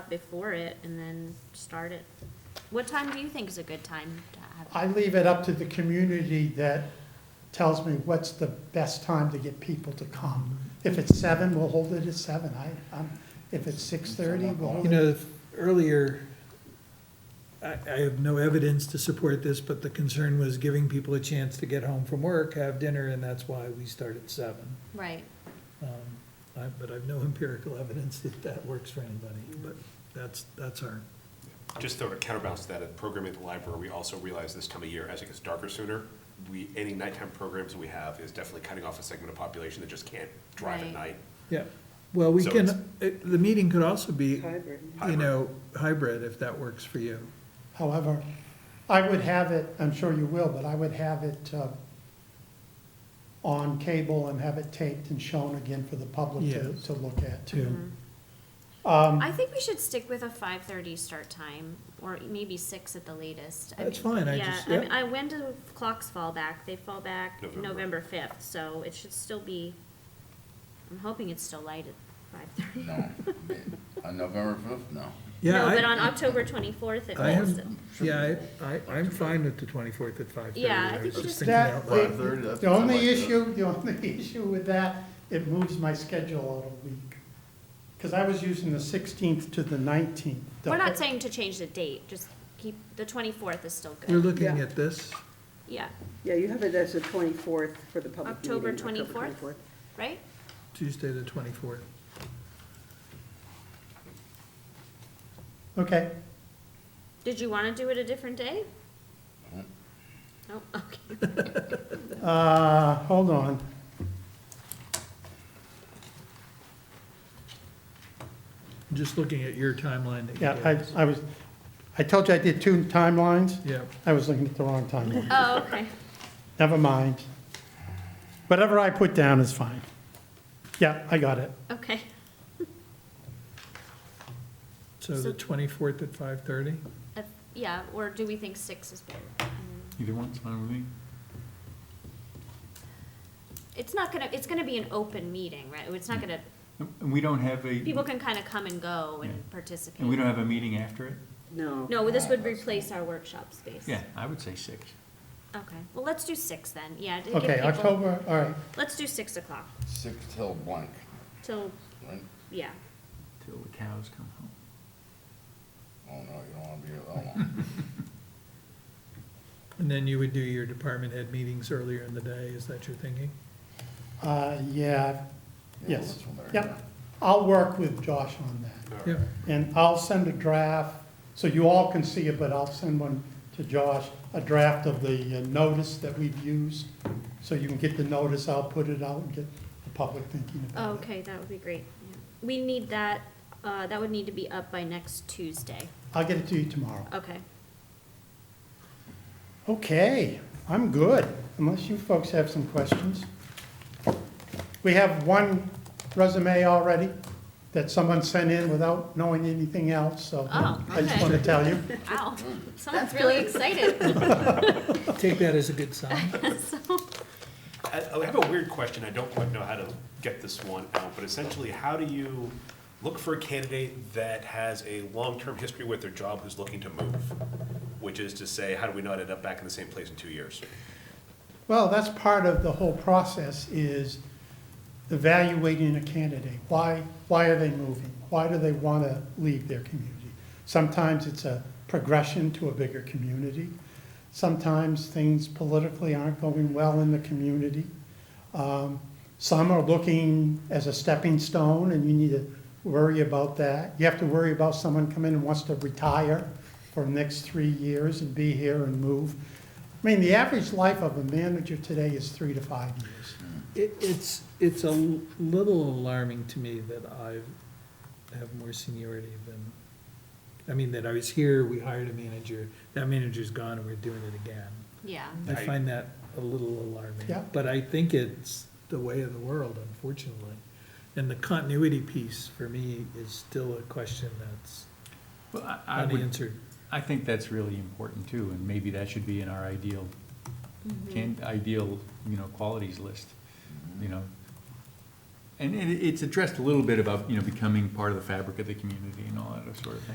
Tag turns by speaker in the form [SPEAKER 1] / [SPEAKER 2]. [SPEAKER 1] before it and then start it. What time do you think is a good time to have?
[SPEAKER 2] I leave it up to the community that tells me what's the best time to get people to come. If it's seven, we'll hold it at seven. I, um, if it's six thirty, we'll hold
[SPEAKER 3] You
[SPEAKER 2] it.
[SPEAKER 3] know, if- earlier, I, I have no evidence to support this, but the concern was giving people a chance to get home from work, have dinner, and that's why we start at seven.
[SPEAKER 1] Right,
[SPEAKER 3] Um, I, but I've no empirical evidence that that works for anybody, but that's, that's our,
[SPEAKER 4] Just to counterbalance that, at programming at the library, we also realize this time of year, as it gets darker sooner, we, any nighttime programs we have is definitely cutting off a segment of population that just can't drive at
[SPEAKER 1] Right.
[SPEAKER 4] night.
[SPEAKER 3] yeah. Well, we
[SPEAKER 4] So
[SPEAKER 3] can,
[SPEAKER 4] it's-
[SPEAKER 3] it- the meeting could also be,
[SPEAKER 5] Hybrid.
[SPEAKER 3] you know, hybrid if that works for you.
[SPEAKER 2] However, I would have it, I'm sure you will, but I would have it, uh, on cable and have it taped and shown again for the public to,
[SPEAKER 3] Yes. Mm-hmm.
[SPEAKER 2] to look at
[SPEAKER 3] Yeah.
[SPEAKER 2] too. Um,
[SPEAKER 1] I think we should stick with a five thirty start time, or maybe six at the latest. I
[SPEAKER 3] That's
[SPEAKER 1] mean,
[SPEAKER 3] fine, I just-
[SPEAKER 1] Yeah, I
[SPEAKER 3] yeah.
[SPEAKER 1] mean, I, when do clocks fall back? They fall back
[SPEAKER 4] November.
[SPEAKER 1] November fifth, so it should still be, I'm hoping it's still light at five thirty.
[SPEAKER 6] No, on November fifth, no.
[SPEAKER 3] Yeah,
[SPEAKER 1] No, but
[SPEAKER 3] I,
[SPEAKER 1] on October twenty-fourth, it
[SPEAKER 3] I
[SPEAKER 1] was,
[SPEAKER 3] am, yeah, I, I- I'm fine with the twenty-fourth at five thirty.
[SPEAKER 1] Yeah, I think
[SPEAKER 3] was
[SPEAKER 1] we
[SPEAKER 3] just
[SPEAKER 1] just-
[SPEAKER 3] thinking
[SPEAKER 2] That,
[SPEAKER 3] out loud.
[SPEAKER 6] Five-thirty,
[SPEAKER 2] the,
[SPEAKER 6] that's
[SPEAKER 2] the only
[SPEAKER 6] like that.
[SPEAKER 2] issue, the only issue with that, it moves my schedule out a week. Because I was using the sixteenth to the nineteenth.
[SPEAKER 1] we're not saying to change the date, just keep, the twenty-fourth is still
[SPEAKER 3] You're
[SPEAKER 1] good.
[SPEAKER 3] looking
[SPEAKER 5] Yeah.
[SPEAKER 3] at this,
[SPEAKER 1] Yeah,
[SPEAKER 5] Yeah, you have it as the 24th for the public meeting.
[SPEAKER 1] October 24th? right?
[SPEAKER 3] Tuesday the twenty-fourth.
[SPEAKER 2] Okay,
[SPEAKER 1] Did you wanna do it a different day? No, okay.
[SPEAKER 2] uh, hold on.
[SPEAKER 3] Just looking at your timeline that you
[SPEAKER 2] Yeah,
[SPEAKER 3] gave us.
[SPEAKER 2] I, I was, I told you I did two timelines.
[SPEAKER 3] Yeah,
[SPEAKER 2] I was looking at the wrong timeline.
[SPEAKER 1] Oh, okay.
[SPEAKER 2] Never mind. Whatever I put down is fine. Yeah, I got it.
[SPEAKER 1] Okay,
[SPEAKER 3] so the
[SPEAKER 1] So-
[SPEAKER 3] twenty-fourth at five-thirty?
[SPEAKER 1] If- yeah, or do we think six is better? Mm,
[SPEAKER 7] Either one's fine with me.
[SPEAKER 1] It's not gonna, it's gonna be an open meeting, right? It's not gonna,
[SPEAKER 7] And we don't have
[SPEAKER 1] people
[SPEAKER 7] a,
[SPEAKER 1] can kinda come and go
[SPEAKER 7] Yeah.
[SPEAKER 1] and participate.
[SPEAKER 7] and we don't have a meeting after it?
[SPEAKER 5] No.
[SPEAKER 1] No, this would replace our workshop space.
[SPEAKER 7] Yeah, I would say six.
[SPEAKER 1] Okay, well, let's do six then, yeah. to give
[SPEAKER 2] Okay,
[SPEAKER 1] people-
[SPEAKER 2] October, all right.
[SPEAKER 1] Let's do six o'clock,
[SPEAKER 6] Six till blank,
[SPEAKER 1] till,
[SPEAKER 6] right?
[SPEAKER 1] yeah.
[SPEAKER 7] Till the cows come home.
[SPEAKER 6] Oh, no, you don't wanna be here that long.
[SPEAKER 3] And then you would do your department head meetings earlier in the day, is that your thinking?
[SPEAKER 2] Uh, yeah,
[SPEAKER 6] Yeah,
[SPEAKER 2] Yes.
[SPEAKER 6] this one better,
[SPEAKER 2] Yep. I'll work with Josh on that.
[SPEAKER 4] All right.
[SPEAKER 3] Yeah,
[SPEAKER 2] And I'll send a draft, so you all can see it, but I'll send one to Josh, a draft of the uh, notice that we've used. So you can get the notice, I'll put it out and get the public thinking about it.
[SPEAKER 1] Oh, Okay, that would be great. yeah. We need that, uh, that would need to be up by next Tuesday.
[SPEAKER 2] I'll get it to you tomorrow.
[SPEAKER 1] Okay.
[SPEAKER 2] Okay, I'm good, unless you folks have some questions. We have one resume already that someone sent in without knowing anything else, so
[SPEAKER 1] Oh,
[SPEAKER 2] I just
[SPEAKER 1] okay.
[SPEAKER 2] want to tell you.
[SPEAKER 1] Wow, someone's really excited.
[SPEAKER 3] take that as a good sign.
[SPEAKER 4] I I have a weird question, I don't quite know how to get this one out, but essentially, how do you look for a candidate that has a long-term history with their job who's looking to move? Which is to say, how do we not end up back in the same place in two years?
[SPEAKER 2] Well, that's part of the whole process is evaluating a candidate. Why, why are they moving? Why do they want to leave their community? Sometimes it's a progression to a bigger community. Sometimes things politically aren't going well in the community. Um, Some are looking as a stepping stone, and you need to worry about that. You have to worry about someone coming and wants to retire for the next three years and be here and move. I mean, the average life of a manager today is three to five years.
[SPEAKER 3] It, it's, it's a little alarming to me that I have more seniority than, I mean, that I was here, we hired a manager, that manager's gone and we're doing it again.
[SPEAKER 1] Yeah,
[SPEAKER 3] I
[SPEAKER 4] I-
[SPEAKER 3] find that a little alarming.
[SPEAKER 2] Yeah.
[SPEAKER 3] But I think it's the way of the world, unfortunately. And the continuity piece for me is still a question that's
[SPEAKER 7] Well, I- I would,
[SPEAKER 3] unanswered.
[SPEAKER 7] I think that's really important too, and maybe that should be in our ideal,
[SPEAKER 1] Mm-hmm.
[SPEAKER 7] can, ideal, you know, qualities list, you know? And it, it's addressed a little bit about, you know, becoming part of the fabric of the community and all that sort of thing.